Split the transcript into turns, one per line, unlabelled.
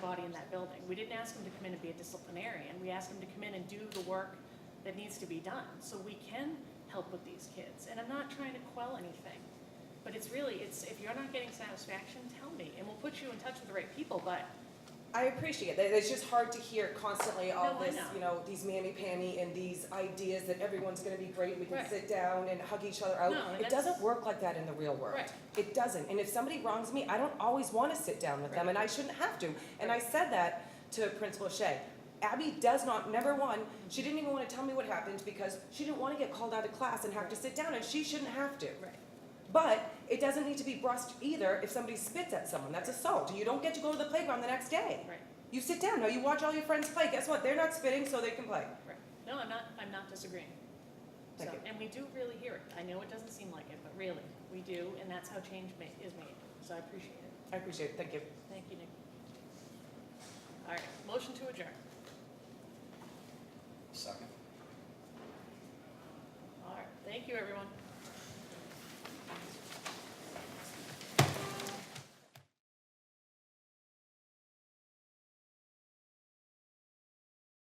from that building. We didn't ask them to come in and be a disciplinarian, we asked them to come in and do the work that needs to be done. So we can help with these kids, and I'm not trying to quell anything. But it's really, it's, if you're not getting satisfaction, tell me, and we'll put you in touch with the right people, but
I appreciate that. It's just hard to hear constantly all
No, I
this,
know.
you know, these mammy pammy and these ideas that everyone's gonna be great, we can
Right.
sit down and hug each other out.
No, and
It
that's-
doesn't work like that in the real world.
Right.
It doesn't. And if somebody wrongs me, I don't always wanna sit down with them
Right.
and I shouldn't have to. And I said that to Principal Shea. Abby does not, number one, she didn't even wanna tell me what happened because she didn't wanna get called out of class and have to sit down and she shouldn't have to.
Right.
But it doesn't need to be brushed either if somebody spits at someone. That's assault. You don't get to go to the playground the next day.
Right.
You sit down. Now you watch all your friends play. Guess what? They're not spitting, so they can play.
Right. No, I'm not, I'm not disagreeing. So,
Thank you.
and we do really hear it. I know it doesn't seem like it, but really, we do, and that's how change ma- is made. So I appreciate it.
I appreciate it. Thank you.
Thank you, Nick. All right, motion to adjourn.
Second.
All right, thank you, everyone.